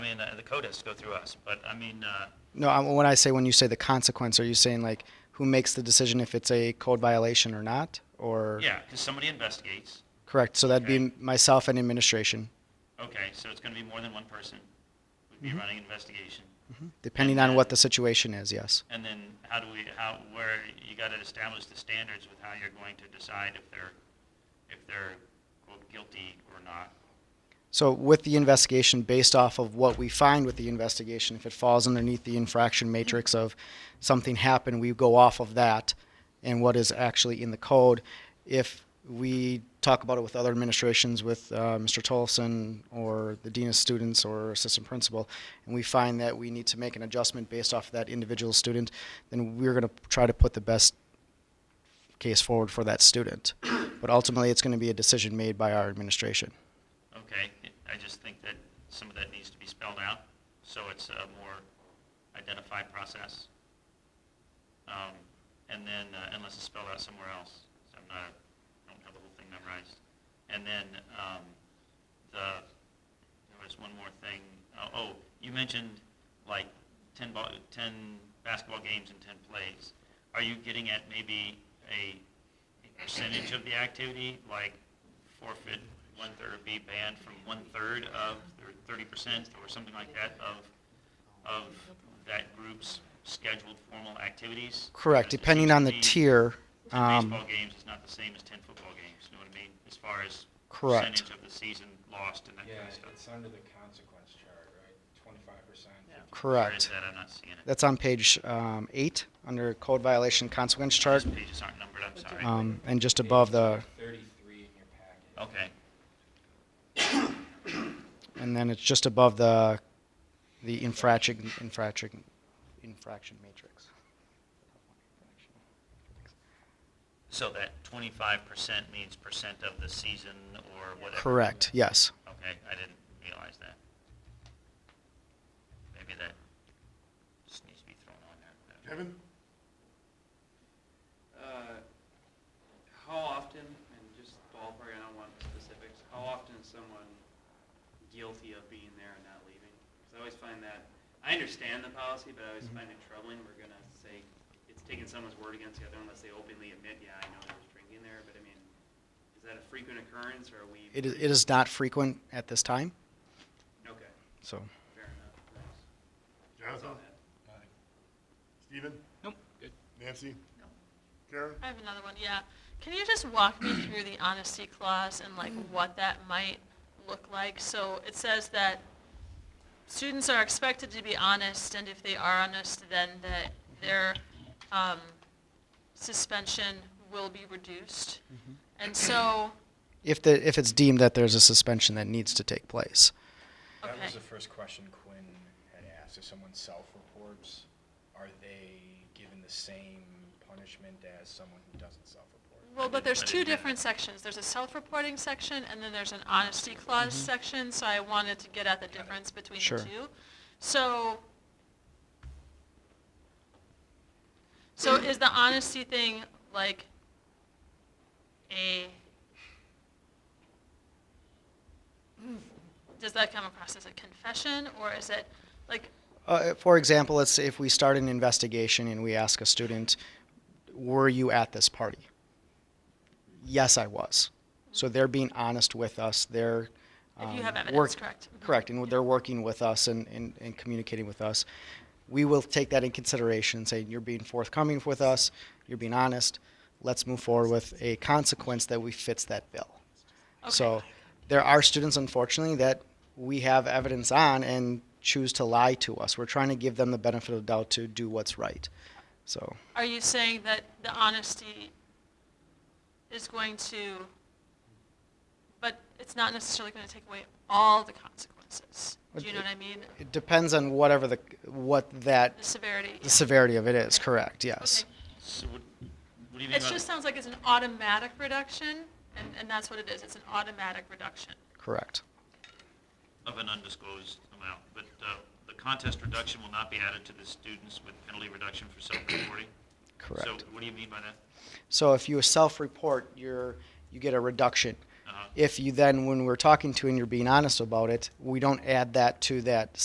saying that the code has to go through us, but I mean, uh, No, I- when I say when you say the consequence, are you saying like who makes the decision if it's a code violation or not? Or yeah, because somebody investigates. correct. So that'd Okay. be myself and administration, Okay, so it's going to be more than one person would be running investigation. depending Mm-hmm. And on what then- the situation is. Yes. And then how do we, how, where, you got to establish the standards with how you're going to decide if they're, if they're quote guilty or not. So with the investigation, based off of what we find with the investigation, if it falls underneath the infraction matrix of something happened, we go off of that and what is actually in the code. If we talk about it with other administrations, with uh, Mr. Tolson or the dean of students or assistant principal, and we find that we need to make an adjustment based off of that individual student, then we're going to try to put the best case forward for that student. But ultimately, it's going to be a decision made by our administration. Okay, I just think that some of that needs to be spelled out, so it's a more identified process. Um, And then, uh, unless it's spelled out somewhere else, so I'm not, I don't have the whole thing memorized. And then, um, the, there was one more thing, oh, oh, you mentioned like ten ball, ten basketball games and ten plays. Are you getting at maybe a a percentage of the activity, like forfeit one-third, or be banned from one-third of, or thirty percent, or something like that of, of that group's scheduled formal activities? Correct, Because it depending seems on to the be tier. Ten um, baseball games is not the same as ten football games, you know what I mean? As far as Correct. percentage of the season lost and that Yeah, kind of stuff. it's under the consequence chart, right? Twenty-five percent. Where is Correct. that? I'm not seeing it. That's on page um, eight, under code violation consequence chart, These pages aren't numbered, I'm sorry. um, and just above the, Thirty-three in your packet. Okay, and then it's just above the, the infraction, infraction, infraction matrix. so that twenty-five percent means percent of the season or whatever. Correct, yes. Okay, I didn't realize that. Maybe that just needs to be thrown on there. Kevin? Uh, How often, and just ballpark, I don't want specifics, how often is someone guilty of being there and not leaving? Because I always find that, I understand the policy, but Mm-hmm. I always find it troubling, we're gonna say, it's taking someone's word against the other unless they openly admit, yeah, I know there was drinking there, but I mean, is that a frequent occurrence, or are we? It is, it is not frequent at this time, Okay, so. fair enough. Thanks. That's Jonathan? all I had. Steven? Nope, Nancy? No. Karen? I have another one, yeah. Can you just walk me through the honesty clause and like what that might look like? So it says that students are expected to be honest, and if they are honest, then that their um, suspension will be reduced. And so, If the, if it's deemed that there's a suspension that needs to take place. okay. That was the first question Quinn had asked, if someone self-reports, are they given the same punishment as someone who doesn't self-report? Well, but there's But two it- different sections. There's a self-reporting section, and then there's an honesty clause section, so I wanted to get at the difference between Mm-hmm. Sure. the two. So, so is the honesty thing like a, does that come across as a confession, or is it, like, Uh, for example, let's say if we start an investigation and we ask a student, were you at this party? Yes, I was. So they're being honest with us. They're um, If you have evidence, correct. Mhm. Correct, and they're working with us and, and, and communicating with us. We will take that in consideration, saying you're being forthcoming with us, you're being honest. Let's move forward with a consequence that we fits that bill. okay. So there are students, unfortunately, that we have evidence on and choose to lie to us. We're trying to give them the benefit of the doubt to do what's right. So Are you saying that the honesty is going to, but it's not necessarily going to take away all the consequences? Do you know what I mean? it depends on whatever the what The that severity. the severity of it is. Okay. Correct. Yes. Okay. So what, what do you mean It by? just sounds like it's an automatic reduction, and, and that's what it is. It's an automatic reduction. Correct. of an undisclosed amount, but uh, the contest reduction will not be added to the students with penalty reduction for self-reporting? Correct. So what do you mean by that? So if you self-report, you're you get a reduction. Uh-huh. If you then, when we're talking to you and you're being honest about it, we don't add that to that